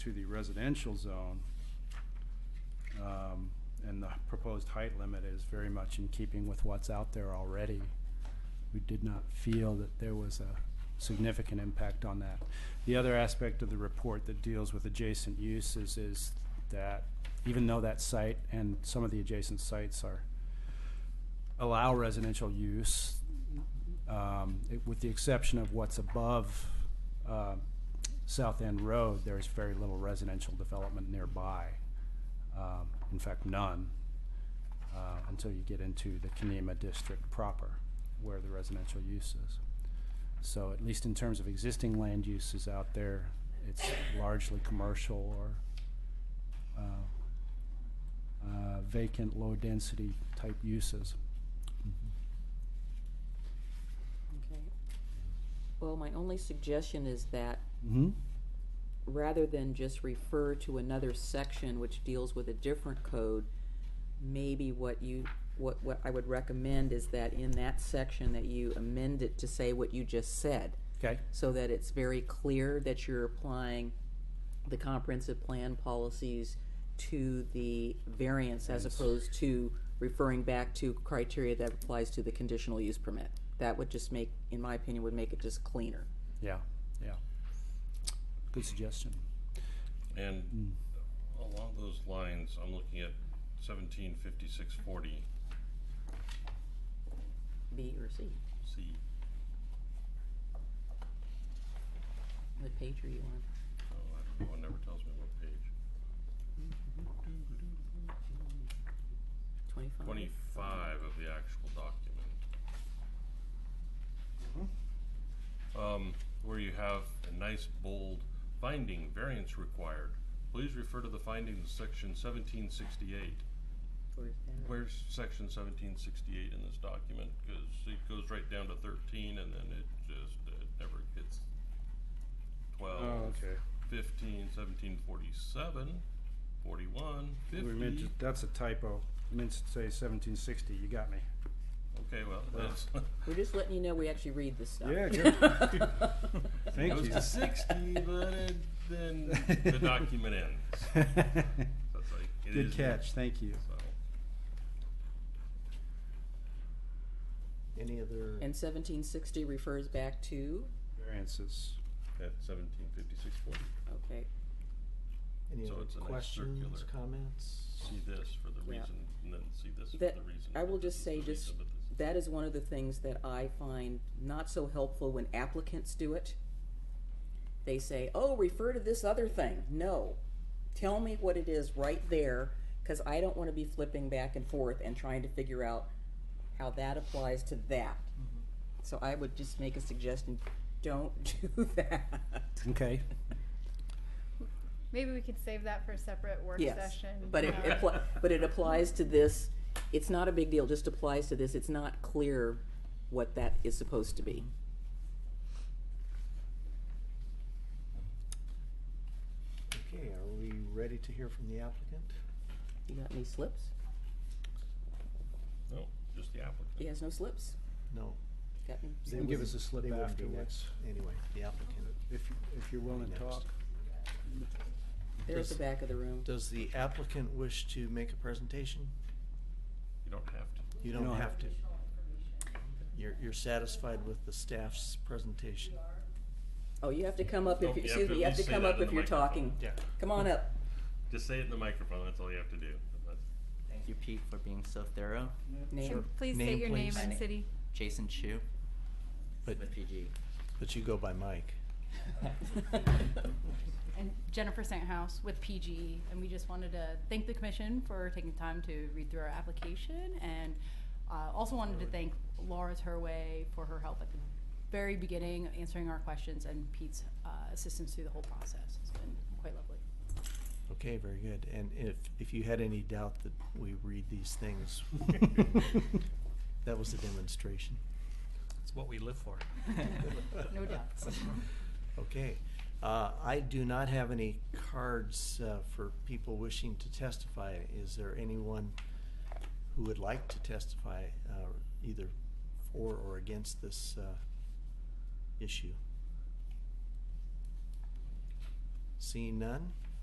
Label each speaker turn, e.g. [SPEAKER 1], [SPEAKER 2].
[SPEAKER 1] to the residential zone. Um, and the proposed height limit is very much in keeping with what's out there already. We did not feel that there was a significant impact on that. The other aspect of the report that deals with adjacent uses is that even though that site and some of the adjacent sites are, allow residential use, um, it- with the exception of what's above uh, South End Road, there is very little residential development nearby. Um, In fact, none, uh, until you get into the Kenema District proper, where the residential use is. So at least in terms of existing land uses out there, it's largely commercial or uh, uh, vacant, low-density type uses.
[SPEAKER 2] Okay. Well, my only suggestion is that
[SPEAKER 1] Mhm.
[SPEAKER 2] rather than just refer to another section which deals with a different code, maybe what you, what, what I would recommend is that in that section that you amend it to say what you just said,
[SPEAKER 1] Okay,
[SPEAKER 2] so that it's very clear that you're applying the comprehensive plan policies to the variance as
[SPEAKER 1] Variance.
[SPEAKER 2] opposed to referring back to criteria that applies to the conditional use permit. That would just make, in my opinion, would make it just cleaner.
[SPEAKER 1] yeah, yeah. Good suggestion. Mm.
[SPEAKER 3] And along those lines, I'm looking at seventeen fifty-six forty
[SPEAKER 2] B or C?
[SPEAKER 3] C.
[SPEAKER 2] What page are you on?
[SPEAKER 3] Oh, I don't know, it never tells me what page.
[SPEAKER 2] Twenty-five?
[SPEAKER 3] Twenty-five of the actual document. Um, where you have a nice bold finding, variance required. Please refer to the findings section seventeen sixty-eight.
[SPEAKER 2] Or is that-
[SPEAKER 3] Where's section seventeen sixty-eight in this document? Cause it goes right down to thirteen and then it just, it never gets
[SPEAKER 1] Oh,
[SPEAKER 3] twelve, fifteen, seventeen, forty-seven, forty-one,
[SPEAKER 1] We meant
[SPEAKER 3] fifty.
[SPEAKER 1] to- that's a typo. I meant to say seventeen sixty, you got me.
[SPEAKER 3] Okay, well, that's,
[SPEAKER 2] We're just letting you know we actually read this stuff.
[SPEAKER 1] Yeah, good.
[SPEAKER 3] it
[SPEAKER 1] Thank
[SPEAKER 3] goes
[SPEAKER 1] you.
[SPEAKER 3] to sixty, but it, then the document ends. So it's like, it
[SPEAKER 1] Good
[SPEAKER 3] is-
[SPEAKER 1] catch, thank you.
[SPEAKER 3] So,
[SPEAKER 4] Any other?
[SPEAKER 2] And seventeen sixty refers back to,
[SPEAKER 1] Variances.
[SPEAKER 3] at seventeen fifty-six forty,
[SPEAKER 2] okay,
[SPEAKER 4] Any
[SPEAKER 3] So
[SPEAKER 4] other
[SPEAKER 3] it's a nice
[SPEAKER 4] questions,
[SPEAKER 3] circular-
[SPEAKER 4] comments?
[SPEAKER 3] see this for the
[SPEAKER 2] Yeah.
[SPEAKER 3] reason, and then see this for the
[SPEAKER 2] That-
[SPEAKER 3] reason.
[SPEAKER 2] I will
[SPEAKER 3] but this
[SPEAKER 2] just
[SPEAKER 3] is
[SPEAKER 2] say
[SPEAKER 3] the reason,
[SPEAKER 2] just-
[SPEAKER 3] but this is-
[SPEAKER 2] that is one of the things that I find not so helpful when applicants do it. They say, oh, refer to this other thing. No, tell me what it is right there, because I don't want to be flipping back and forth and trying to figure out how that applies to that. So I would just make a suggestion, don't do that.
[SPEAKER 1] Okay,
[SPEAKER 5] Maybe we could save that for a separate work
[SPEAKER 2] Yes,
[SPEAKER 5] session.
[SPEAKER 2] but it,
[SPEAKER 5] um,
[SPEAKER 2] it appli- but it applies to this, it's not a big deal, just applies to this, it's not clear what that is supposed to be.
[SPEAKER 4] Okay, are we ready to hear from the applicant?
[SPEAKER 2] You got any slips?
[SPEAKER 3] No, just the applicant.
[SPEAKER 2] He has no slips.
[SPEAKER 4] No.
[SPEAKER 2] Got any?
[SPEAKER 4] they
[SPEAKER 1] You can give us
[SPEAKER 4] wouldn't-
[SPEAKER 1] a slip
[SPEAKER 4] they wouldn't be
[SPEAKER 1] afterwards.
[SPEAKER 4] next. Anyway, the applicant.
[SPEAKER 1] if, if you're willing to
[SPEAKER 4] Next.
[SPEAKER 1] talk.
[SPEAKER 2] They're at the back of the room.
[SPEAKER 4] Does the applicant wish to make a presentation?
[SPEAKER 3] You don't have to.
[SPEAKER 4] You
[SPEAKER 1] No.
[SPEAKER 4] don't have to. You're, you're satisfied with the staff's presentation?
[SPEAKER 2] Oh, you have to come up if,
[SPEAKER 3] Nope, you
[SPEAKER 2] you
[SPEAKER 3] have
[SPEAKER 2] excuse me,
[SPEAKER 3] to at
[SPEAKER 2] you have to
[SPEAKER 3] least say
[SPEAKER 2] come
[SPEAKER 3] that
[SPEAKER 2] up
[SPEAKER 3] in
[SPEAKER 2] if
[SPEAKER 3] the
[SPEAKER 2] you're
[SPEAKER 3] microphone.
[SPEAKER 2] talking.
[SPEAKER 4] Yeah.
[SPEAKER 2] Come on up.
[SPEAKER 3] Just say it in the microphone, that's all you have to do. That's-
[SPEAKER 6] Thank you, Pete, for being so thorough.
[SPEAKER 2] Name.
[SPEAKER 5] and Please
[SPEAKER 4] Name,
[SPEAKER 5] state your name
[SPEAKER 4] please.
[SPEAKER 5] and city.
[SPEAKER 6] Jason Chu,
[SPEAKER 4] But,
[SPEAKER 6] with PG.
[SPEAKER 4] but you go by Mike.
[SPEAKER 5] And Jennifer House with PGE, and we just wanted to thank the commission for taking time to read through our application, and uh, also wanted to thank Laura Turway for her help at the very beginning, answering our questions, and Pete's uh, assistance through the whole process. It's been quite lovely.
[SPEAKER 4] Okay, very good. And if, if you had any doubt that we read these things, that was a demonstration.
[SPEAKER 7] It's what we live for.
[SPEAKER 5] No doubts.
[SPEAKER 4] Okay. Uh, I do not have any cards uh, for people wishing to testify. Is there anyone who would like to testify uh, either for or against this uh, issue? Seeing none?